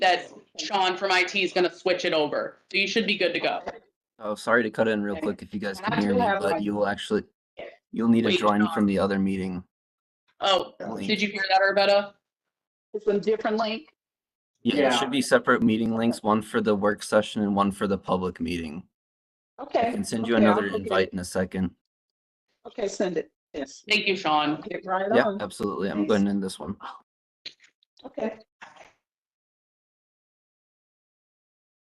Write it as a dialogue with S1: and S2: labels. S1: that Sean from IT is gonna switch it over. So you should be good to go.
S2: Oh, sorry to cut in real
S3: Okay.
S2: quick if you guys
S3: And I
S2: can hear
S3: do
S2: me,
S3: have my-
S2: but you'll actually, you'll need to
S1: Wait,
S2: join
S1: Sean.
S2: from the other meeting.
S1: Oh, did you hear that, Arbetta?
S3: It's a different link.
S2: Yeah, there should be separate meeting links, one for the work session and one for the public meeting.
S3: Okay.
S2: I can send you
S3: okay, I'll
S2: another
S3: look at it.
S2: invite in a second.
S3: Okay, send it. Yes.
S1: Thank you, Sean.
S3: Get right
S2: Yeah,
S3: on.
S2: absolutely. I'm
S3: Thanks.
S2: going in this one.
S3: Okay.